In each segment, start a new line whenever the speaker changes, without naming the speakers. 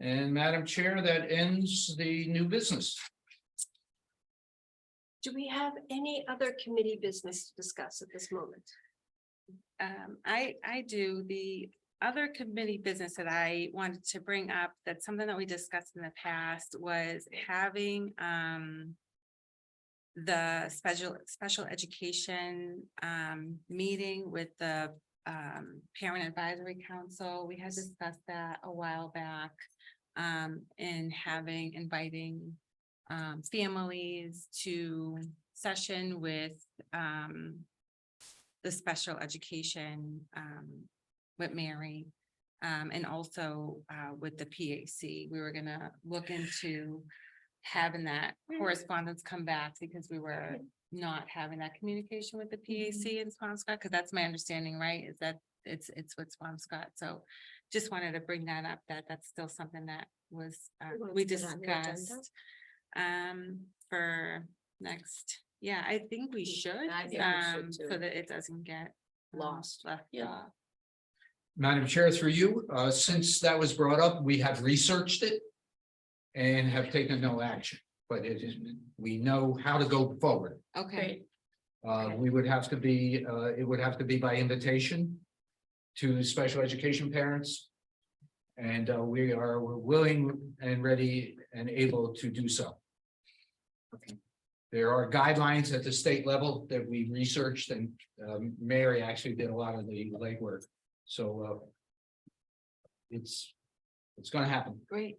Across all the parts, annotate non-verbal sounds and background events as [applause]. And Madam Chair, that ends the new business.
Do we have any other committee business to discuss at this moment?
Um, I, I do, the other committee business that I wanted to bring up, that's something that we discussed in the past, was having, um. The special, special education, um, meeting with the, um, parent advisory council, we had discussed that a while back. Um, and having, inviting, um, families to session with, um the special education um with Mary. Um and also uh with the PAC, we were gonna look into having that correspondence come back because we were not having that communication with the E PAC
Mm-hmm.
in Swampscott, because that's my understanding, right? Is that it's it's with Swampscott, so just wanted to bring that up, that that's still something that was uh
You want
we
to put it on the agenda?
discussed um for next, yeah, I think we should,
Mm-hmm. I think we should
um, so
too.
that it doesn't get. um,
Lost.
left
Yeah.
off.
Madam Chair, through you, uh, since that was brought up, we have researched it. And have taken no action, but it is, we know how to go forward.
Okay,
Uh, we would have to be, uh, it would have to be by invitation. To special education parents. And, uh, we are willing and ready and able to do so.
Okay.
There are guidelines at the state level that we researched and, um, Mary actually did a lot of the legwork, so, uh. It's, it's gonna happen.
great.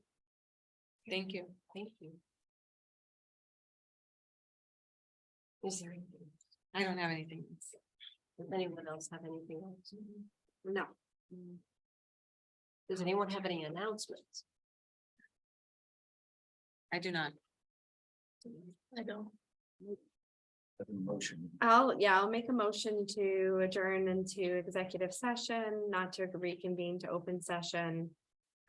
Thank you.
Thank you. Is there anything-
I don't have anything.
does anyone else have anything else? No. Does anyone have any announcements?
I do not.
I don't.
Motion.
I'll, yeah, I'll make a motion to adjourn into executive session, not to reconvene to open session.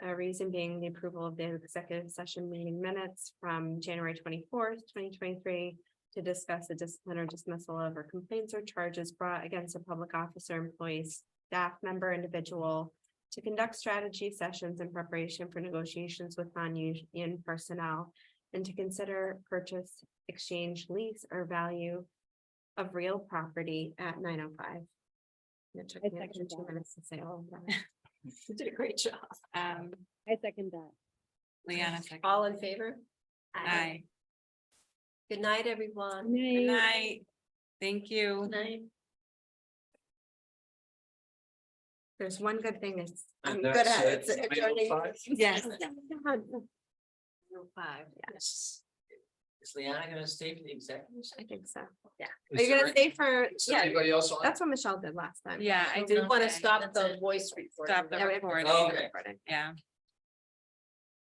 A reason being the approval of the executive session meeting minutes from January twenty-fourth, twenty twenty-three. To discuss the discipline or dismissal of or complaints or charges brought against a public officer, employee, staff member, individual. To conduct strategy sessions in preparation for negotiations with non-union personnel. And to consider purchase, exchange, lease, or value of real property at nine oh five. It took
I
me
second
two
that.
minutes to say all of that.
You did a great job.
Um,
I second that.
Leanna. second.
All in favor?
Aye.
Good night, everyone.
Good
Night.
night. Thank you.
night.
There's one good thing is.
And
I'm
that's oh
good at
at
it's adjourning
9:05?
meetings.
Yes.
Five, yes.
Is Liana gonna stay for the executive?
[laughs] I think so. Are
Is
you
there
gonna stay for, yeah,
anybody else on?
that's what Michelle did last time.
Yeah, I
We
do
want to stop the voice recording.
Stop the
Yeah, we have to
recording.
stop the
Okay.
recording.
Yeah,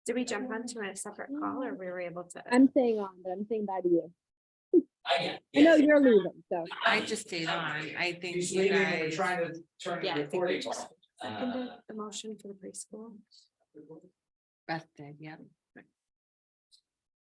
Did we jump onto a separate call or we were able to?
I'm staying on, but I'm saying bye to you.
I
I know you're leaving, so.
I just stayed on. I think
He's
you
leaving and we're
guys.
trying to turn
Yeah, I
the
think we
recording
just-
off.
Seconded
Uh,
Uh,
The motion for the preschool.
Beth did, yeah.